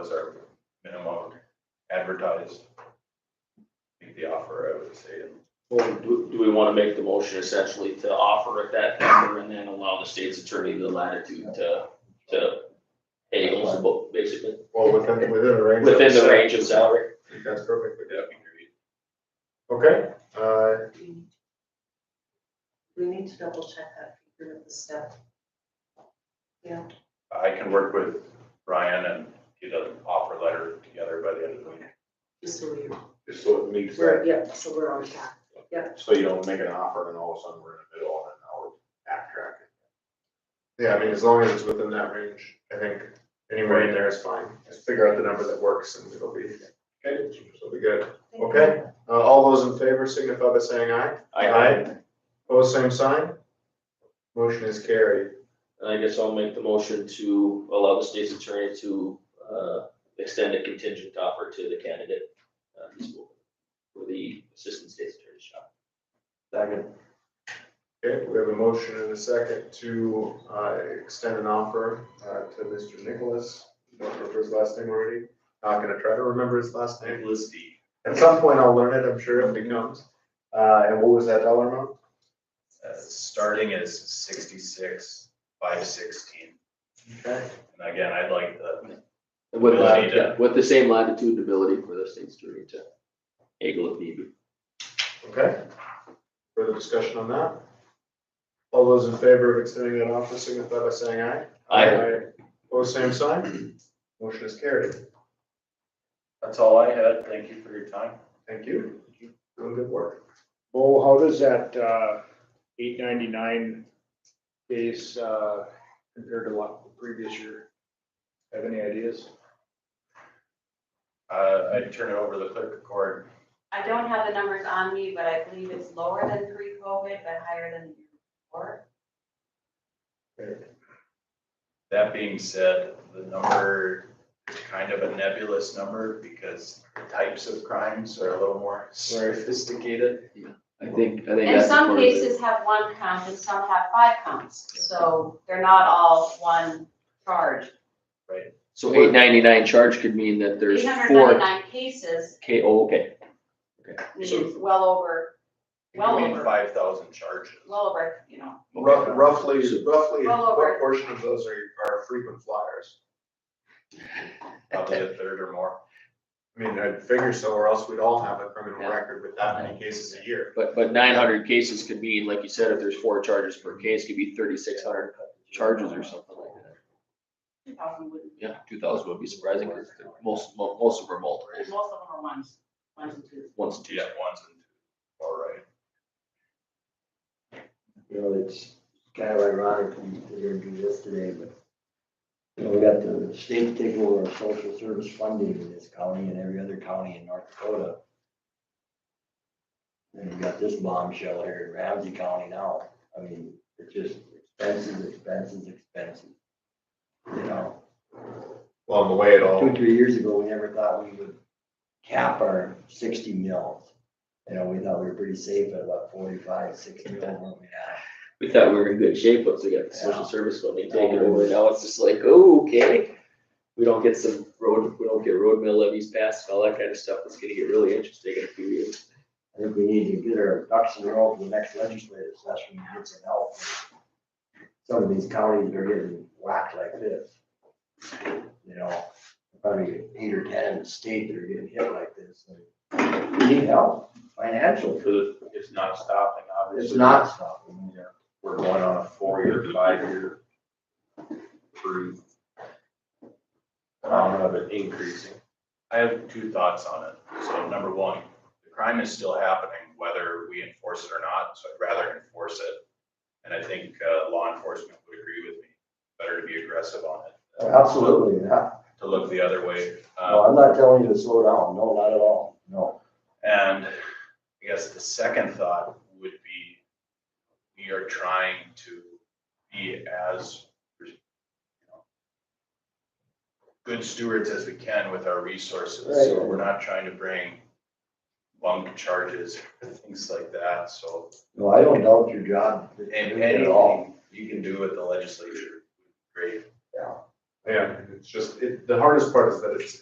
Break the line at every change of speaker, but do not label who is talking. was our minimum advertised. I think The offer, I would say,
Well, do, do we wanna make the motion essentially to offer at that number and then allow the state's attorney the latitude to, to pay eligible, basically,
Well, within, within the range. that we
within the
set,
range of salary?
I think That's perfect.
would that be great?
Okay, uh,
We need to double check that figure with the step. Yeah,
I can work with Ryan and get an offer letter together by the end of the week,
just so we're,
just so it meets
we're,
that,
yeah, so we're on track.
so you don't make an offer and all of a sudden we're in the middle and now we're backtracking. Yeah, I mean, as long as it's within that range, I think anywhere in there is fine. Just figure out the number that works and it'll be, okay, it'll be good. Okay, uh, all those in favor signify by saying aye. Aye. Pose same sign. Motion is carried.
And I guess I'll make the motion to allow the state's attorney to, uh, extend a contingent offer to the candidate, uh, this will- for the assistant state's attorney's job.
Okay, we have a motion and a second to, uh, extend an offer, uh, to Mr. Nicholas. Don't remember his last name already. Not gonna try to remember his last name.
Nicholas D.
At some point I'll learn it, I'm sure, if it comes. Uh, and what was that dollar amount?
Uh, starting is sixty-six, five sixteen,
Okay.
and again, I'd like the,
With,
We'll
lat-
need to-
yeah, with the same latitude and ability for the state's attorney to haggle if need be.
Okay. Further discussion on that? All those in favor of extending that offer signify by saying aye.
Aye.
Pose same sign. Motion is carried.
that's all I had, thank you for your time.
Thank you. Doing good work.
Bo, how does that, uh, eight ninety-nine base, uh, compare to what the previous year? Have any ideas?
Uh, I'd turn it over to the clerk of court,
I don't have the numbers on me, but I believe it's lower than pre-COVID, but higher than the year before.
That being said, the number is kind of a nebulous number because the types of crimes are a little more sophisticated.
I think, I think.
And
that's
some
part of it.
cases have one count and some have five counts, so they're not all one charge.
So eight ninety-nine charge could mean that there's
Eight hundred
four
ninety-nine cases
K, oh, okay,
means well over, well over,
Five thousand charges.
well over, you know,
Rough- Roughly, roughly,
Well over.
what portion of those are, are frequent flyers?
Probably a third or more.
I mean, I'd figure so, or else we'd all have a criminal
Yeah.
record with that many cases a year.
but, but nine hundred cases could mean, like you said, if there's four charges per case, could be thirty-six hundred charges or something like that.
two thousand wouldn't be.
Yeah, two thousand would be surprising, because most, mo- most of them are multiples,
Most of them are ones, ones and twos.
once, and
Yeah,
twos.
ones and two. All right.
you know, it's kind of ironic we we're gonna do this today, but you know, we got the state taking over our social service funding in this county and every other county in North Dakota. And we got this bombshell here in Ramsey County now. I mean, it's just expenses, expenses, expenses. You know?
Well, the way it
Two, three years ago, we never thought we would cap our sixty mils. You know, we thought we were pretty safe at about forty-five, sixty mil, weren't we?
We thought we were in good shape once we got the social
Yeah.
service funding taken over, now it's just like, oh, okay. We don't get some road, we don't get road mill levies passed, and all that kind of stuff, it's gonna get really interesting in a few years.
I think we need to get our ducks in a row for the next legislative session, and get some help. Some of these counties are getting whacked like this. You know, probably eight or ten in the state that are getting hit like this. and We need help, financial,
It's not stopping,
it's not stopping.
We're going on a four-year, five-year cruise.
phenomenon
of it increasing. I have two thoughts on it. So number one, the crime is still happening whether we enforce it or not, so I'd rather enforce it. And I think uh, law enforcement would agree with me, better to be aggressive on it. uh,
Absolutely, yeah.
To look the other way. Um,
No, I'm not telling you to slow down, no, not at all, no.
And I guess the second thought would be, we are trying to be as you know, good stewards as we can with our resources, so
Right.
we're not trying to bring bunk charges, things like that, so.
No, I don't doubt your job.
And
at all.
anything you can do with the legislature, great.
Yeah.
Yeah, it's just, it, the hardest part is that it's,